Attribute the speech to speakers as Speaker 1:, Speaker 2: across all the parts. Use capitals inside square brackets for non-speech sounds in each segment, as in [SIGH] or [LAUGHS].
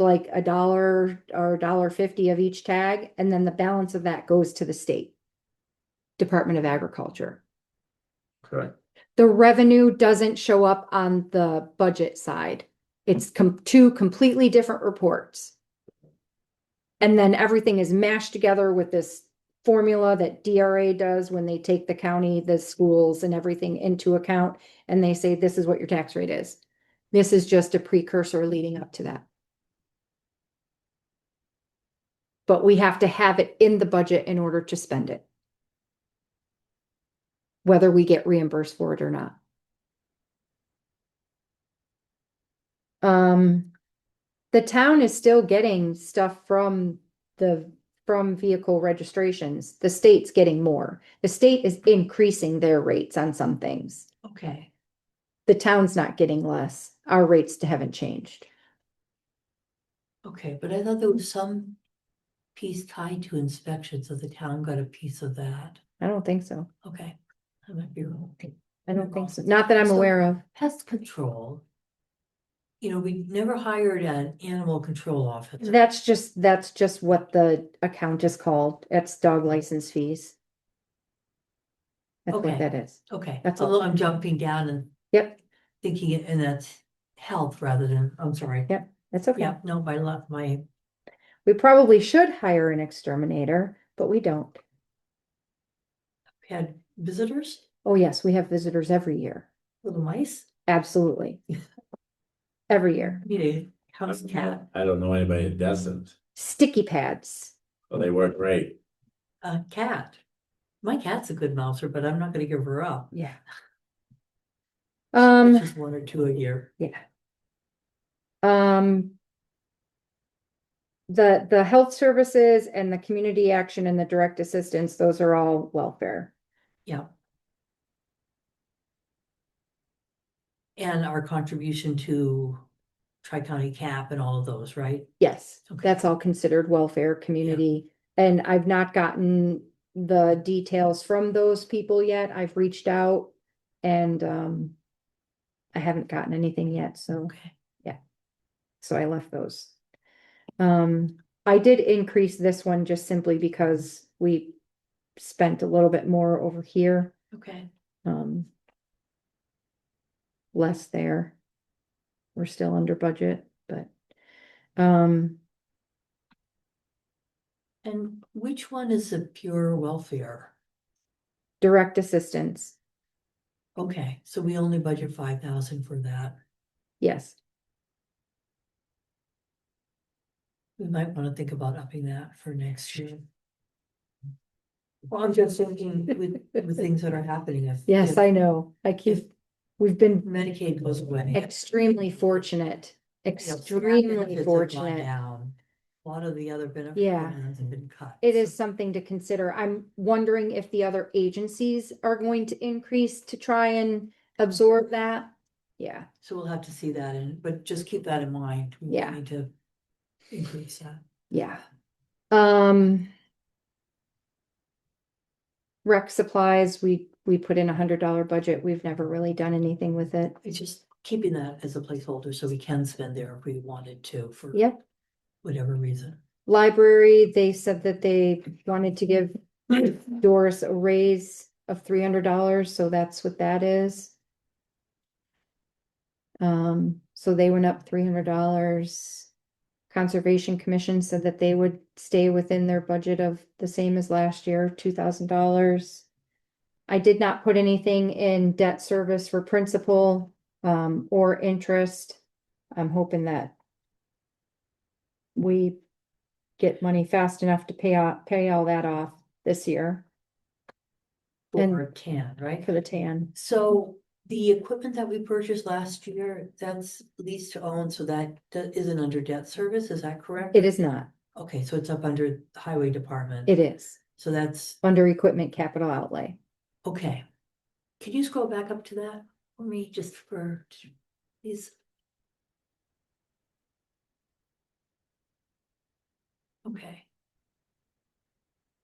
Speaker 1: like a dollar or a dollar fifty of each tag, and then the balance of that goes to the state. Department of Agriculture.
Speaker 2: Okay,
Speaker 1: The revenue doesn't show up on the budget side. It's com- two completely different reports. And then everything is mashed together with this formula that DRA does when they take the county, the schools and everything into account. And they say, this is what your tax rate is. This is just a precursor leading up to that. But we have to have it in the budget in order to spend it. Whether we get reimbursed for it or not. Um, the town is still getting stuff from the, from vehicle registrations. The state's getting more. The state is increasing their rates on some things.
Speaker 3: Okay,
Speaker 1: The town's not getting less. Our rates haven't changed.
Speaker 3: okay, but I thought there was some piece tied to inspection, so the town got a piece of that.
Speaker 1: I don't think so.
Speaker 3: Okay, I might be wrong.
Speaker 1: I don't think so. Not that I'm
Speaker 3: So-
Speaker 1: aware of.
Speaker 3: Pest control. You know, we never hired an animal control officer.
Speaker 1: That's just, that's just what the account is called. It's dog license fees. That's what
Speaker 3: Okay.
Speaker 1: that is.
Speaker 3: Okay,
Speaker 1: that's all.
Speaker 3: although I'm jumping down and
Speaker 1: Yep,
Speaker 3: thinking it, and that's health rather than, I'm sorry.
Speaker 1: Yep. that's okay.
Speaker 3: Yeah, no, my left, my,
Speaker 1: We probably should hire an exterminator, but we don't.
Speaker 3: had visitors,
Speaker 1: Oh, yes, we have visitors every year.
Speaker 3: little mice, [LAUGHS]
Speaker 1: Absolutely. Every year.
Speaker 3: need a house
Speaker 2: don't
Speaker 3: cat.
Speaker 2: I don't know anybody that doesn't,
Speaker 1: Sticky pads.
Speaker 2: Well, they work great.
Speaker 3: a cat. My cat's a good mouser, but I'm not gonna give her up.
Speaker 1: Yeah. Um.
Speaker 3: Just one or two a year.
Speaker 1: Yeah. Um. The, the health services and the community action and the direct assistance, those are all welfare.
Speaker 3: Yeah. And our contribution to Tri-County CAP and all of those, right?
Speaker 1: Yes,
Speaker 3: Okay.
Speaker 1: that's all considered welfare, community. And I've not gotten the details from those people yet. I've reached out and, um, I haven't gotten anything yet, so.
Speaker 3: Okay.
Speaker 1: So I left those. Um, I did increase this one just simply because we spent a little bit more over here,
Speaker 3: Okay.
Speaker 1: um. Less there. We're still under budget, but, um,
Speaker 3: And which one is the pure welfare?
Speaker 1: direct assistance, Mm-hmm.
Speaker 3: Okay, so we only budget five thousand for that.
Speaker 1: yes.
Speaker 3: We might wanna think about upping that for next year. Well, I'm just thinking with, with things that are happening. if-
Speaker 1: Yes,
Speaker 3: if
Speaker 1: I know. I keep, we've been
Speaker 3: Medicaid goes away.
Speaker 1: extremely fortunate,
Speaker 3: you know, so our benefits
Speaker 1: extremely
Speaker 3: have gone
Speaker 1: fortunate.
Speaker 3: down. A lot of the other benefits.
Speaker 1: Yeah.
Speaker 3: Have been cut.
Speaker 1: It
Speaker 3: so-
Speaker 1: is something to consider. I'm wondering if the other agencies are going to increase to try and absorb that. Yeah,
Speaker 3: So we'll have to see that in, but just keep that in mind. We
Speaker 1: Yeah.
Speaker 3: Need to increase that.
Speaker 1: yeah. Um. Rec supplies, we, we put in a hundred dollar budget. We've never really done anything with it.
Speaker 3: It's just keeping that as a placeholder so we can spend there if we wanted to for.
Speaker 1: Yep. [CLEARS THROAT]
Speaker 3: Whatever reason.
Speaker 1: Library, they said that they wanted to give [CLEARS THROAT] Doris a raise of three hundred dollars, so that's what that is. Um, so they went up three hundred dollars. Conservation Commission said that they would stay within their budget of the same as last year, two thousand dollars. I did not put anything in debt service for principal, um, or interest. I'm hoping that we get money fast enough to pay off, pay all that off this year And-
Speaker 3: Or can, right?
Speaker 1: for the tan.
Speaker 3: So the equipment that we purchased last year, that's leased to own, so that that isn't under debt service, is that correct?
Speaker 1: It is not.
Speaker 3: Okay, so it's up under the highway department.
Speaker 1: It is
Speaker 3: So that's,
Speaker 1: under equipment capital outlay.
Speaker 3: okay. Can you scroll back up to that for me, just for, please? Okay.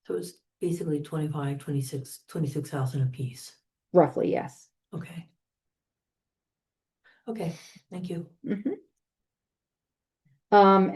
Speaker 3: So it's basically 25, 26, 26,000 apiece.
Speaker 1: Roughly, yes.
Speaker 3: Okay. Okay, thank you.
Speaker 1: Mm-hmm. Um,